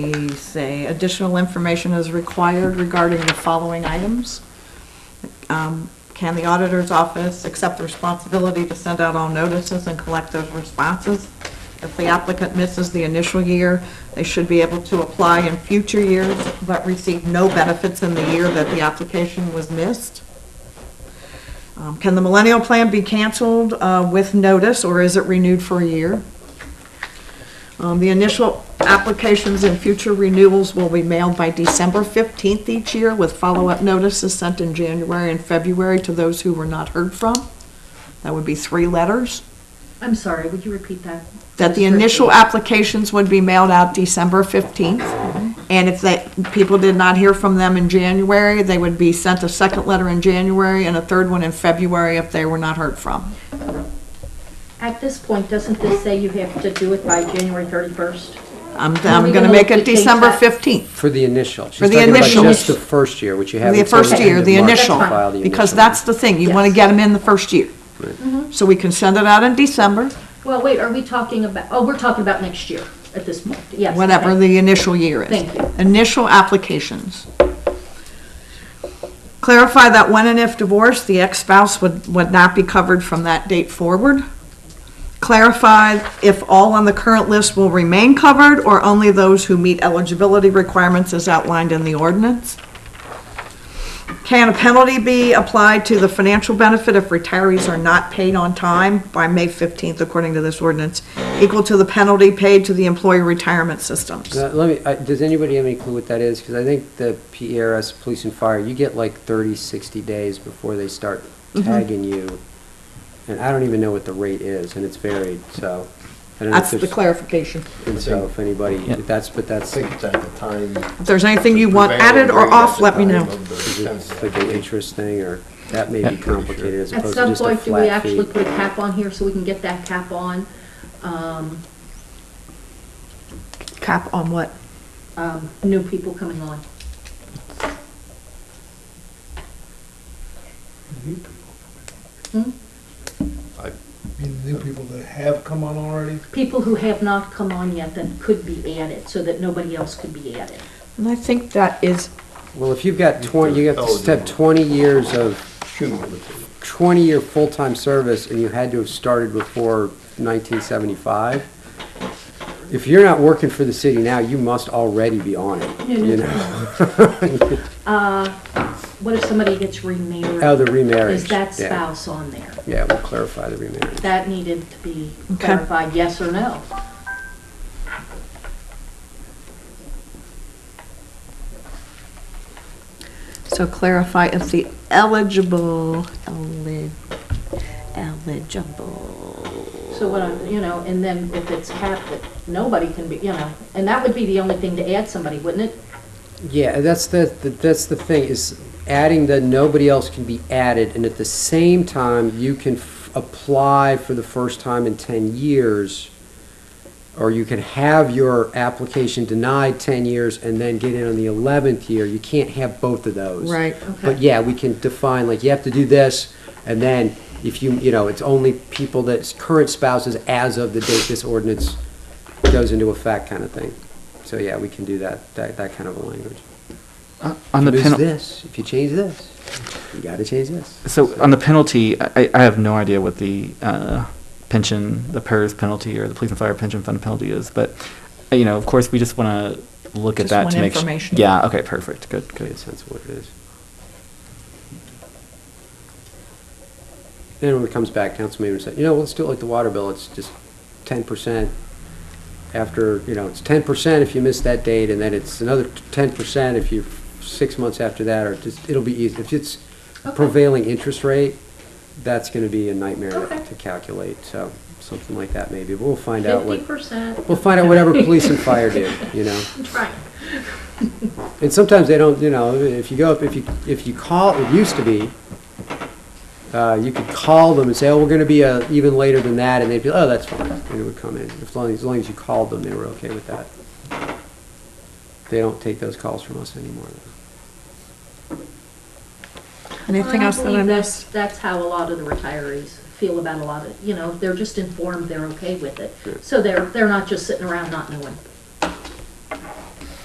We say additional information is required regarding the following items. Um, Can the auditor's office accept the responsibility to send out all notices and collect those responses? If the applicant misses the initial year, they should be able to apply in future years, but receive no benefits in the year that the application was missed. Um, Can the millennial plan be canceled uh, with notice, or is it renewed for a year? Um, The initial applications and future renewals will be mailed by December 15th each year with follow-up notices sent in January and February to those who were not heard from. That would be three letters. I'm sorry, would you repeat that? That the initial applications would be mailed out December 15th. And if they, people did not hear from them in January, they would be sent a second letter in January and a third one in February if they were not heard from. At this point, doesn't this say you have to do it by January 31st? I'm, Are I'm we going gonna to look make to it change December that? 15th. For the initial. For the She's talking initial. about just the first year, which you have. The until first end year, of the March to initial, file the because initial. that's the thing, you want to Yes. get them in the first year. Mm-hmm. So we can send it out in December, Well, wait, are we talking about, oh, we're talking about next year at this point, yes. whatever the initial year is. Thank you. Initial applications. Clarify that when and if divorced, the ex-spouse would, would not be covered from that date forward. Clarify if all on the current list will remain covered or only those who meet eligibility requirements as outlined in the ordinance. Can a penalty be applied to the financial benefit if retirees are not paid on time by May 15th, according to this ordinance, equal to the penalty paid to the employee retirement systems? Uh, Let me, uh, does anybody have any clue what that is? Because I think the PRS, Police and Fire, you get like 30, 60 days before they start Mm-hmm. tagging you. And I don't even know what the rate is, and it's varied, so. I don't know if That's the there's- clarification. And so if anybody, that's, but that's think it's at the time. If there's anything you want added or off, let me know. it's like an interest thing, or that may be complicated as At opposed to some just a point, do we flat actually fee. put a cap on here so we can get that cap on? um, Cap on what? um, New people coming on? Hmm? mean, the new people that have come on already? People who have not come on yet that could be added, so that nobody else could be added. And I think that is, Well, if you've got 20, you have to step Eligible. 20 years of Cumulative. 20-year full-time service and you had to have started before 1975, if you're not working for the city now, you must already be on it, you know? What if somebody gets remarried? Oh, the remarriage. Is that yeah. spouse on there? Yeah, we'll clarify the remarriage. That needed to be Okay. clarified, yes or no? so clarify if the eligible, eli- eligible. So what, I'm- you know, and then if it's capped, that nobody can be, you know, and that would be the only thing to add somebody, wouldn't it? Yeah, that's the, the- that's the thing, is adding the nobody else can be added, and at the same time, you can f- apply for the first time in 10 years, or you can have your application denied 10 years and then get in on the 11th year. You can't have both of those. Right. But yeah, we can define, like, you have to do this, and then if you, you know, it's only people that's current spouses as of the date this ordinance goes into effect kind of thing. So yeah, we can do that, that, that kind of a language. Uh, On the If you lose penalty, this, if you change this, you gotta change this. so on the penalty, I, I have no idea what the uh, pension, the PERS penalty or the police and fire pension fund penalty is, but, uh, you know, of course, we just want to look at Just that want to make. su- information. Yeah, okay, perfect, good, Makes good. sense of what it is. Then when it comes back, council may say, you know, let's do it like the water bill, it's just ten percent after, you know, it's ten percent if you miss that date, and then it's another ten percent if you, six months after that, or just, it'll be easy. If it's Okay. prevailing interest rate, that's gonna be a nightmare Okay. to calculate, so, something like that maybe, but we'll find out what. Fifty percent. We'll find out whatever police and fire do, you know? Right. And sometimes they don't, you know, if you go up, if you, if you call, it used to be, uh, you could call them and say, oh, we're gonna be, uh, even later than that, and they'd be, oh, that's fine, and it would come in. As long, as long as you called them, they were okay with that. They don't take those calls from us anymore. Anything Well, else that I believe missed? that's- That's how a lot of the retirees feel about a lot of, you know, they're just informed, they're okay with it. So they're, they're not just sitting around not knowing.